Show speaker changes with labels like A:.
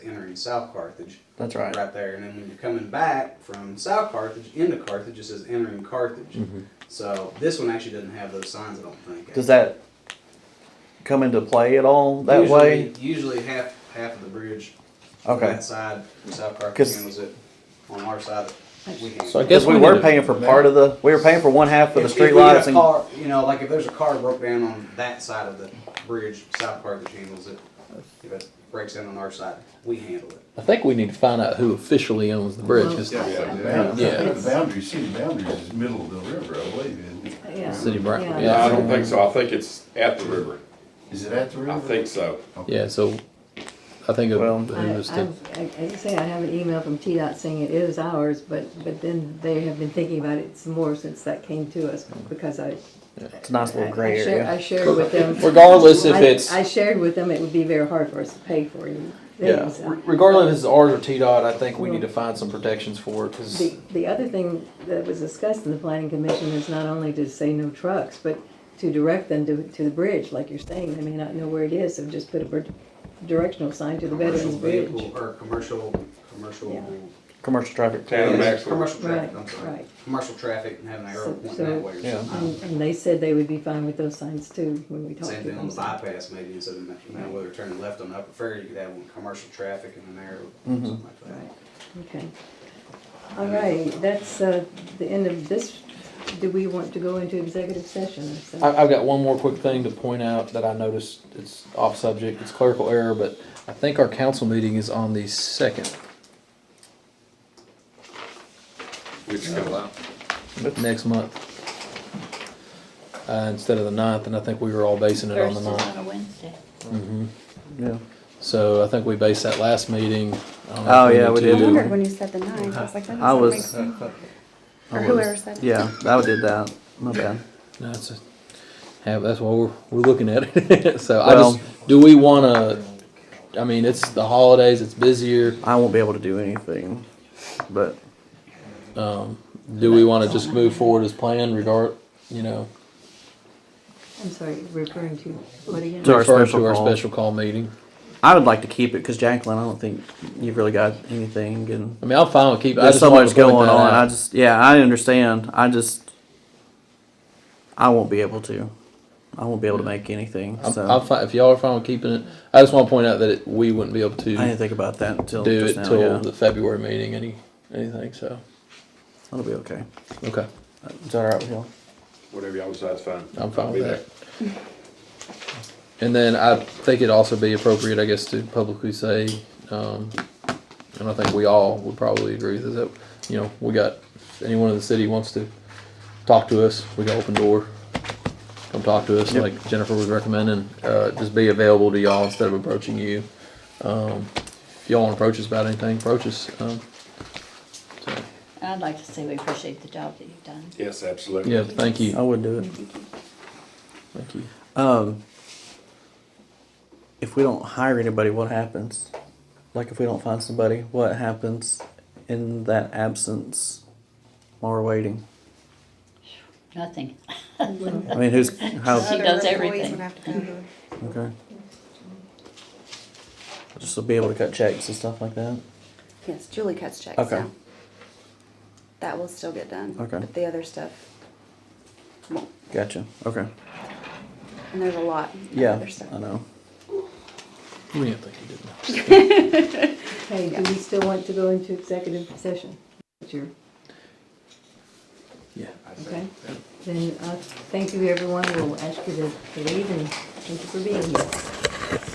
A: in South Carthage,
B: That's right.
A: right there. And then when you're coming back from South Carthage into Carthage, it says entering Carthage. So this one actually doesn't have those signs, I don't think.
B: Mm-hmm. Does that come into play at all that
A: usually,
B: way?
A: Usually half half of the bridge on
B: Okay.
A: that side, South Carthage
B: 'Cause-
A: handles it. On our side, we handle
C: So I
A: it.
C: guess
B: Because we
C: we
B: were
C: need to-
B: paying for part of the, we were paying for one half of the
A: If- if we had
B: streetlights
A: a
B: and,
A: car, you know, like if there's a car broke down on that side of the bridge, South Carthage handles it. If it breaks down on our side, we handle it.
C: I think we need to find out who officially owns the bridges.
D: Yeah, yeah,
C: Yeah.
D: yeah. I think the boundary, city boundaries is middle of the river, I believe, isn't it?
E: Yeah.
C: City of Brown-
E: Yeah.
F: No, I
C: yeah.
F: don't think so. I think it's at the river.
D: Is it at the river?
F: I think so.
C: Yeah, so I think of
B: Well-
E: I,
C: who was
E: I,
C: the,
E: I, as you say, I have an email from TDOT saying it is ours, but, but then they have been thinking about it some more since that came to us, because I.
B: it's a nice
E: I-
B: little gray
E: I shared- I
B: area.
E: shared with them.
C: Regardless if
E: I-
C: it's-
E: I shared with them, it would be very hard for us to pay for you.
C: yeah, re- regardless if it's ours or T-Dot, I think we need to find some protections for it,
E: The,
C: cause,
E: the other thing that was discussed in the planning commission is not only to say no trucks, but to direct them to, to the bridge, like you're saying, they may not know where it is, so just put a bir- directional sign to the
A: Commercial
E: Veterans Bridge.
A: vehicle, or commercial, commercial.
B: Commercial traffic.
F: Town of Maxwell.
A: Commercial traffic, I'm
E: Right,
A: sorry.
E: right.
A: Commercial traffic and having an arrow
E: So-
A: pointing
E: so-
A: that way or
B: Yeah.
A: something.
E: And, and they said they would be fine with those signs too, when we talked
A: Same
E: to
A: thing on
E: them.
A: the
E: so-
A: bypass maybe, instead of, you know, whether turning left on the Upper Ferry, you could have one commercial traffic and an arrow, something like that.
E: Right, okay. All right, that's, uh, the end of this, do we want to go into executive session? So-
C: I, I've got one more quick thing to point out that I noticed, it's off subject, it's clerical error, but I think our council meeting is on the second,
F: Which comes out.
C: next month. Uh, instead of the ninth, and I think we were all basing it on
G: First
C: the
G: is
C: ninth.
G: on a Wednesday.
B: Yeah.
C: So I think we based that last meeting. I don't know
B: Oh,
C: if
B: yeah,
C: need
B: we
C: to
B: did.
H: I
C: do-
H: wondered when you said the nine. I was like, that
B: I
H: doesn't
B: was-
H: make sense.
B: I
H: Or
B: was-
H: whoever said it.
B: Yeah, I did that. My bad.
C: No, it's a, have, that's why we're, we're looking at it. so I
B: Well-
C: just, do we wanna, I mean, it's the holidays, it's busier.
B: I won't be able to do anything, but
C: Do we wanna just move forward as planned regard, you know?
E: I'm sorry, referring to, what again?
B: To our
C: refer
B: special
C: To our
B: call.
C: special call meeting.
B: I would like to keep it because Jacqueline, I don't think you've really got anything and
C: I mean, I'm fine with keeping. I
B: there's
C: just
B: so
C: wanted
B: much
C: to point
B: going
C: that
B: on.
C: out.
B: I just, yeah, I understand. I just, I won't be able to. I won't be able to make anything.
C: I'm,
B: so
C: I'm fine, if y'all are fine with keeping it, I just wanna point out that it, we wouldn't be able
B: I didn't
C: to
B: think about that until
C: do
B: just
C: it
B: now.
C: till
B: yeah.
C: the February meeting, any, anything, so,
B: That'll be okay.
C: okay,
B: Is that all right with y'all?
F: Whatever y'all decide's fine.
C: I'm fine
F: I'll be
C: with
F: there.
C: that. And then I think it'd also be appropriate, I guess, to publicly say, um, and I think we all would probably agree with this, that, you know, we got, if anyone in the city wants to talk to us, we got open door. Come talk to us,
B: Yep.
C: like Jennifer was recommending, uh, just be available to y'all instead of approaching you. Um, if y'all wanna approach us about anything, approach us, um, so,
G: And I'd like to say we appreciate the job that you've done.
F: Yes, absolutely.
C: yeah, thank you.
B: I would do it.
G: Thank you.
C: Thank you.
B: Um, if we don't hire anybody, what happens? Like, if we don't find somebody, what happens in that absence while we're waiting?
G: Nothing.
B: I mean, who's how?
G: She
H: Other
G: does everything.
H: employees would have to go to-
B: Okay. Just to be able to cut checks and stuff like that.
H: Yes, Julie cuts checks
B: Okay.
H: now. That will still get done.
B: Okay.
H: But the other stuff won't.
B: Gotcha. Okay.
H: And there's a lot. of
B: Yeah,
H: other stuff.
B: I know.
C: We didn't think you did that.
E: Hey, do we still want to go into executive session? What's your-
C: Yeah.
E: Okay, then, uh, thank you, everyone, we'll ask you to leave, and thank you for being here.